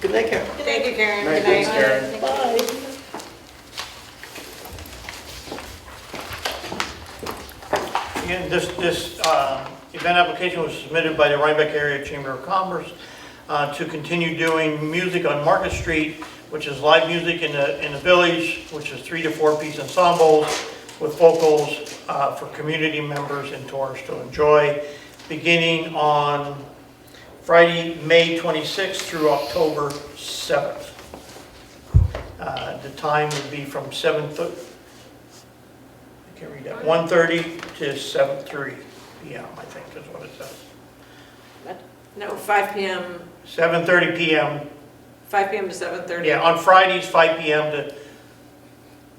Good night, Karen. Thank you, Karen. Merry Good night. Christmas, Karen. Bye. Again, this, this uh, event application was submitted by the Rhinebeck Area Chamber of Commerce uh, to continue doing music on Market Street, which is live music in the, in the village, which is three to four piece ensembles with vocals uh, for community members and tourists to enjoy, beginning on Friday, May 26th through October 7th. Uh, The time would be from 7:30, I can't read that, 1:30 to 7:30 PM, I think is what it says. No, 5 PM, 7:30 PM, 5 PM to 7:30. yeah, on Fridays, 5 PM to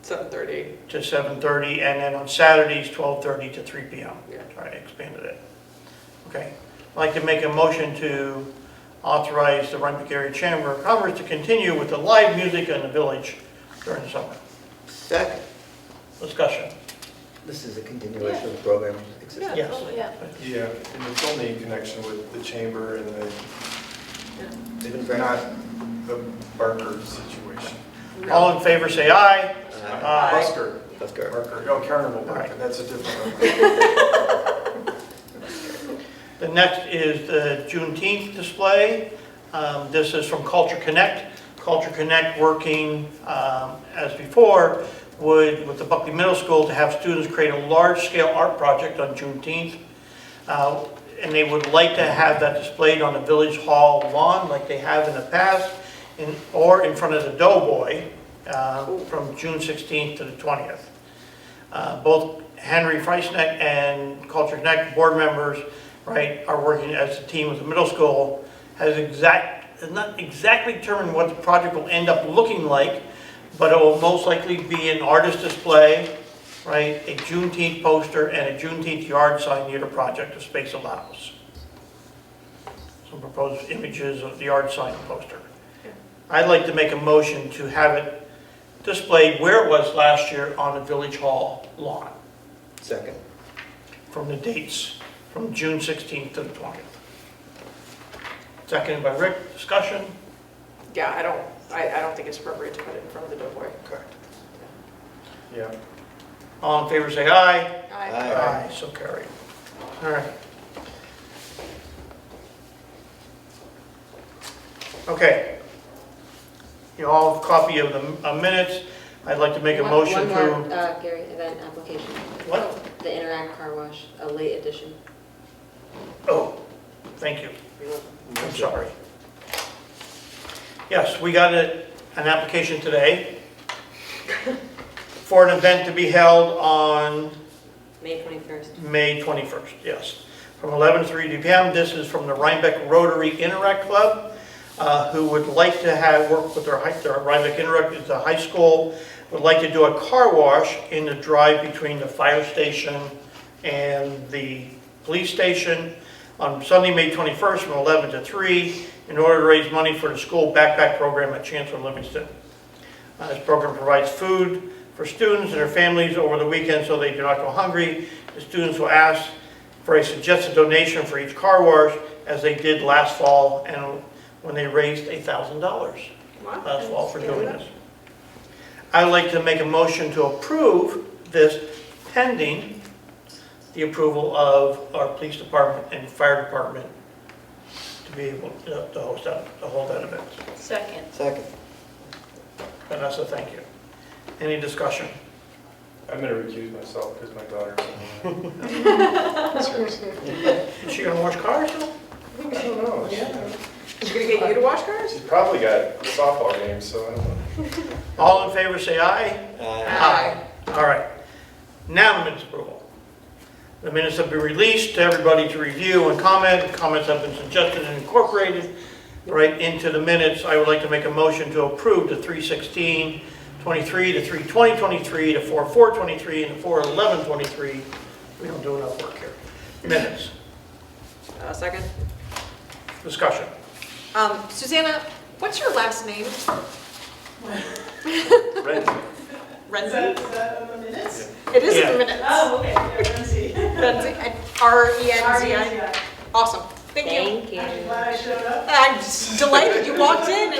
7:30. to 7:30, and then on Saturdays, 12:30 to 3 PM. Yeah. Sorry, I expanded it. Okay. I'd like to make a motion to authorize the Rhinebeck Area Chamber of Commerce to continue with the live music in the village during the summer. Second, Discussion. this is a continuation of the program existing. Yes. Yeah. Yeah, and it's only in connection with the chamber and the, It's been very- not the Barker situation. All in favor, say aye. Uh, Aye. Busker, Let's go. Barker, oh, Carnival Barker, Right. that's a different one. The next is the Juneteenth display. Um, This is from Culture Connect. Culture Connect, working um, as before, would, with the Buckley Middle School, to have students create a large-scale art project on Juneteenth. Uh, And they would like to have that displayed on the Village Hall lawn like they have in the past, in- or in front of the Doughboy uh, from June 16th to the 20th. Uh, Both Henry Freisneck and Culture Connect board members, right, are working as a team with the middle school, has exact, has not exactly determined what the project will end up looking like, but it will most likely be an artist display, right, a Juneteenth poster and a Juneteenth yard sign near the project if space allows. Some proposed images of the yard sign and poster. I'd like to make a motion to have it displayed where it was last year on the Village Hall lawn, Second, from the dates from June 16th to the 20th. Seconded by Rick, discussion, Yeah, I don't, I, I don't think it's appropriate to put it in front of the Doughboy. correct. Yeah, all in favor, say aye. Aye. So carried. All right. Okay. You all have a copy of the uh, minutes, I'd like to make a One- One motion to. more, uh, Gary, event application. Oh, What? The Interact Car Wash, a late edition. Oh, thank you. I'm sorry. Yes, we got a- an application today for an event to be held on May 21st. May 21st, yes, from 11 to 3 p.m. This is from the Rhinebeck Rotary Interact Club, uh, who would like to have, work with their, high- their Rhinebeck Interact, it's a high school, would like to do a car wash in the drive between the fire station and the police station on Sunday, May 21st, from 11 to 3, in order to raise money for the school backpack program at Chancellor Livingston. Uh, This program provides food for students and their families over the weekend so they do not go hungry. The students will ask for a suggested donation for each car wash, as they did last fall, and when they raised $1,000 Wow. last fall for doing this. I would like to make a motion to approve this pending the approval of our police department and fire department to be able to to host that, to hold that event. Second. Second, Vanessa, thank you. Any discussion? I'm gonna recuse myself because my daughter's. Is she gonna wash cars though? I don't know. She- She's gonna get you to wash cars? She's probably got softball games, so I don't know. All in favor, say aye. Aye. Aye. All right. Now the minutes approval. The minutes have been released to everybody to review and comment. Comments have been suggested and incorporated right into the minutes. I would like to make a motion to approve the 316, 23, the 320, 23, the 44, 23, and the 411, 23. We don't do enough work here. Minutes, Uh, Second. discussion. Um, Susanna, what's your last name? Is Renzi? that, is that on the minutes? It is Yeah. in the minutes. Oh, okay, yeah, Lindsay. Renzi, E I- R-E-N-Z-I. E I'm Awesome. Thank you. Thank you. glad I showed up. I'm delighted you walked in